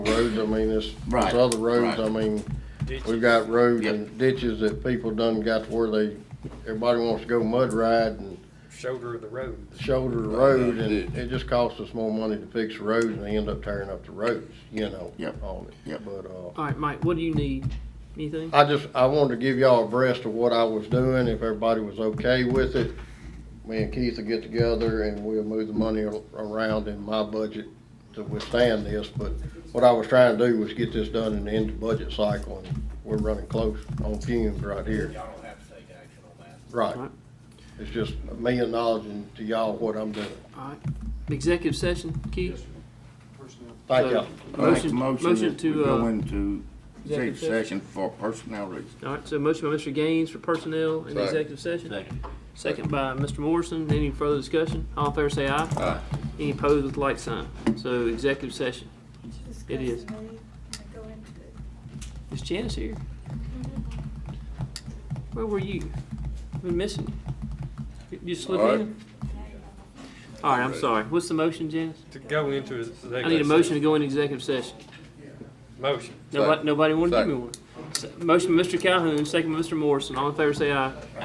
roads, I mean, it's, Right, it's other roads, right. I mean, Ditches. we've got roads Yep. and ditches that people done got to where they, everybody wants to go mud ride and shoulder of the road. shoulder the road, and it just costs us more money to fix the roads, and they end up tearing up the roads, you know, Yep. on it. Yep. But, uh, All right, Mike, what do you need? Uh, Anything? I just, I wanted to give y'all abreast of what I was doing, if everybody was okay with it. Me and Keith will get together and we'll move the money ar- around in my budget to withstand this, but what I was trying to do was get this done in the end of budget cycle, and we're running close on fumes right here. Y'all don't have to take action on that. Right. Right. It's just me acknowledging to y'all what I'm doing. All right. Executive session, Keith? Thank y'all. I make a Motion- motion motion that we to, go uh, into executive executive session for personnel reasons. All right, so motion by Mr. Gaines for personnel in Second. the executive session. Second by Mr. Morrison. Any further discussion? All in favor say aye. Aye. Any opposed with like sign. So executive session. It is. Is Janice here? Where were you? Been missing you. You just slipped All right. in? All right, I'm sorry. What's the motion, Janice? To go into his. I need a motion to go into executive session. Motion. Nobody, Second. nobody wanted to give me one. Se- Motion by Mr. Calhoun, second by Mr. Morrison. All in favor say aye.